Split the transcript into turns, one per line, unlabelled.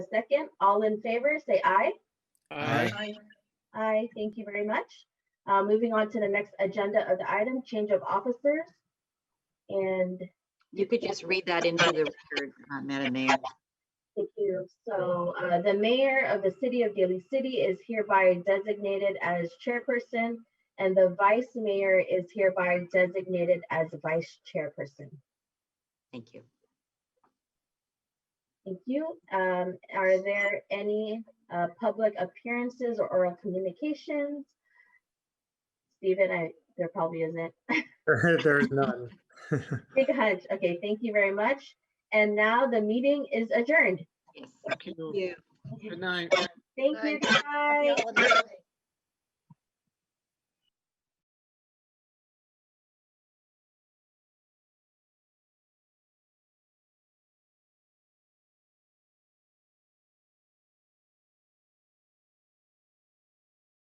a second. All in favor, say aye.
Aye.
Aye, thank you very much. Uh, Moving on to the next agenda of the item, change of officers. And
You could just read that into the record, uh, Madam Mayor.
Thank you. So uh, the mayor of the city of Daly City is hereby designated as chairperson, and the vice mayor is hereby designated as vice chairperson.
Thank you.
Thank you. Um, Are there any uh, public appearances or oral communications? Stephen, I, there probably isn't.
There's none.
Big hunch. Okay, thank you very much. And now the meeting is adjourned.
Yes.
Thank you.
You.
Good night.
Thank
Happy
you, guys.
holidays.